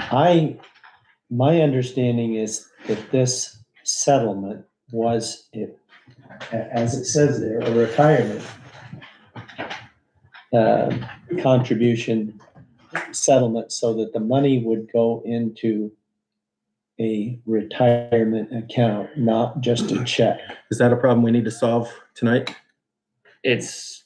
I, my understanding is that this settlement was it, a- as it says there, a retirement uh, contribution settlement so that the money would go into a retirement account, not just a check. Is that a problem we need to solve tonight? It's,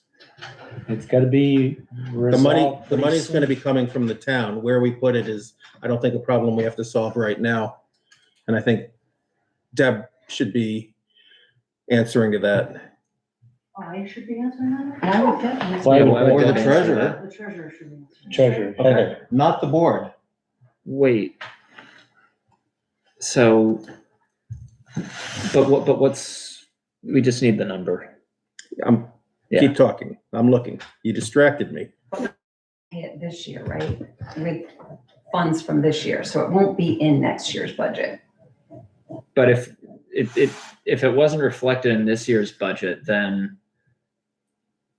It's gotta be The money, resolved. the money's pretty gonna be coming from the town. Where we put it is, I don't think a problem we have to solve right now. And I think Deb should be answering to that. I should be answering that? I would definitely. Why would- Yeah, why would Or the Deb answer treasurer. that? The treasurer should be answering. Treasure. Okay, not the board. wait. So, but what, but what's, we just need the number. I'm, Yeah. keep talking. I'm looking. You distracted me. Hit this year, right, with funds from this year, so it won't be in next year's budget. But if, it, it, if it wasn't reflected in this year's budget, then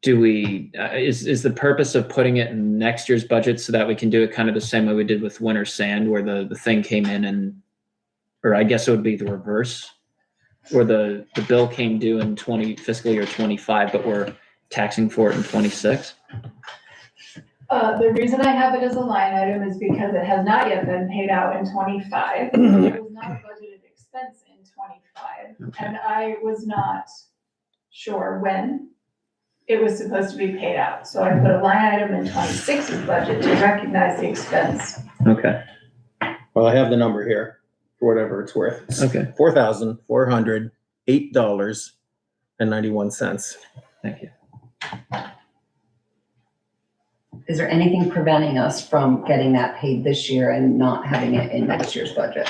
do we, uh, is, is the purpose of putting it in next year's budget so that we can do it kind of the same way we did with winter sand where the, the thing came in and, or I guess it would be the reverse, where the, the bill came due in twenty fiscal year twenty-five, but we're taxing for it in twenty-six? Uh, the reason I have it as a line item is because it has not yet been paid out in twenty-five. It was not a budgeted expense in twenty-five, and I was not sure when it was supposed to be paid out. So I put a line item in 26's budget to recognize the expense. Okay, Well, I have the number here, for whatever it's worth. okay, Four thousand, four hundred, eight dollars and ninety-one cents. thank you. Is there anything preventing us from getting that paid this year and not having it in next year's budget?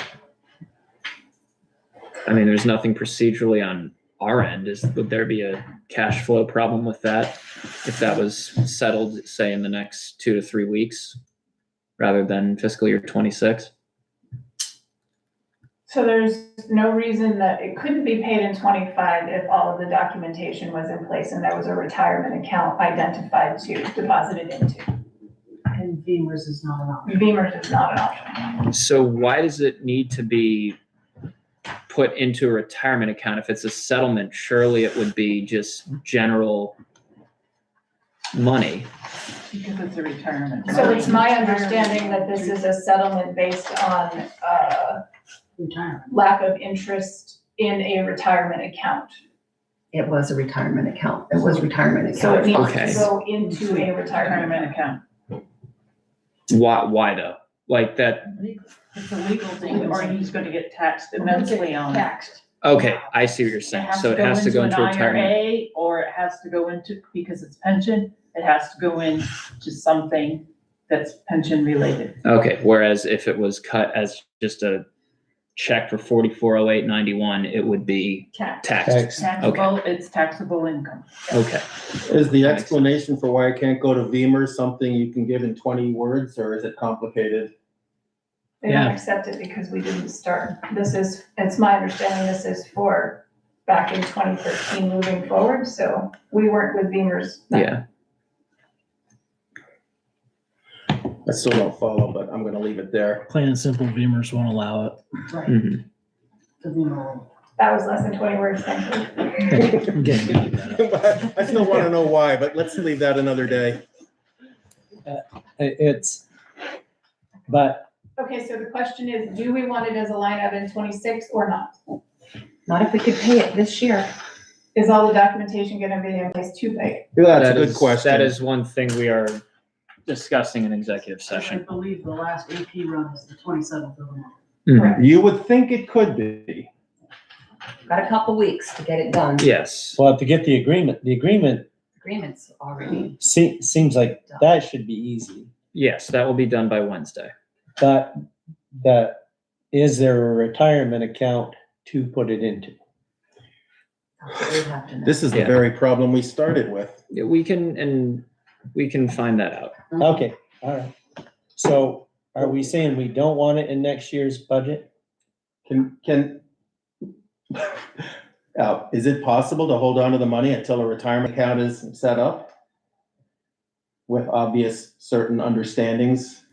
I mean, there's nothing procedurally on our end. Is, would there be a cash flow problem with that? If that was settled, say, in the next two to three weeks, rather than fiscal year twenty-six? So there's no reason that it couldn't be paid in twenty-five if all of the documentation was in place and there was a retirement account identified to, deposited into. And Beamer's is not an option. Beamer's is not an option. So why does it need to be put into a retirement account? If it's a settlement, surely it would be just general money. Because it's a retirement. So it's my understanding that this is a settlement based on, uh, Retirement. lack of interest in a retirement account. It was a retirement account, it was retirement So account it needs Okay. to funds. go into a retirement. Retirement account. Why, why though? Like that, It's a legal thing, or he's gonna get taxed immensely on it. Taxed. okay, I see what you're saying. So it has to go into an retirement. IRA, Or it has to go into, because it's pension, it has to go into something that's pension related. Okay, whereas if it was cut as just a check for forty-four oh eight ninety-one, it would be Tax. taxed. Tax. Taxable, it's taxable income. Okay, Is the Thanks. explanation for why I can't go to Veeam something you can give in twenty words, or is it complicated? They don't Yeah. accept it because we didn't start. This is, it's my understanding this is for back in twenty thirteen moving forward, so we weren't with Beamer's. then. yeah, I still don't follow, but I'm gonna leave it there. Plain and simple, Beamers won't allow it. Right. mhm. That was less than twenty words, thank you. I'm getting good at that. I still wanna know why, but let's leave that another day. I- It's, but Okay, so the question is, do we want it as a line item in twenty-six or not? Not if we could pay it this year. Is all the documentation gonna be in place to pay? That's a That good is- question. That is one thing we are discussing in executive I session. believe the last AP run is the twenty-seventh of the month. Mhm. You would think it could be. Got a couple weeks to get it done. Yes, we'll have to get the agreement. The agreement Agreements Mm. already. se- seems like that should be easy. yes, that will be done by Wednesday. But that, is there a retirement account to put it into? That's what we have to know. This is the Yeah. very problem we started with. Yeah, We can, and we can find that out. Okay, all right. So are we saying we don't want it in next year's budget? Can, can, uh, is it possible to hold on to the money until a retirement account is set up? With obvious certain understandings?